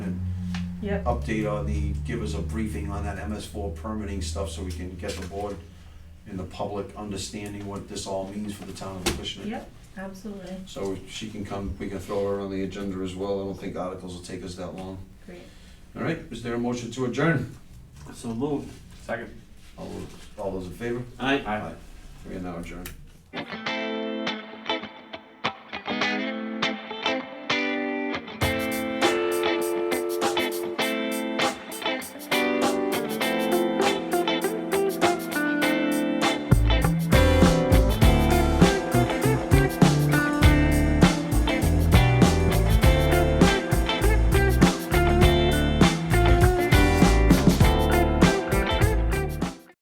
Yep. update on the, give us a briefing on that MS four permitting stuff so we can get the board and the public understanding what this all means for the town of Acushnet. Yep, absolutely, So she can come, we can throw her on the agenda as well. I don't think articles will take us that long. great. All right, is there a motion to adjourn? So moved. Second. All those, all those in favor? Aye. We are now adjourned.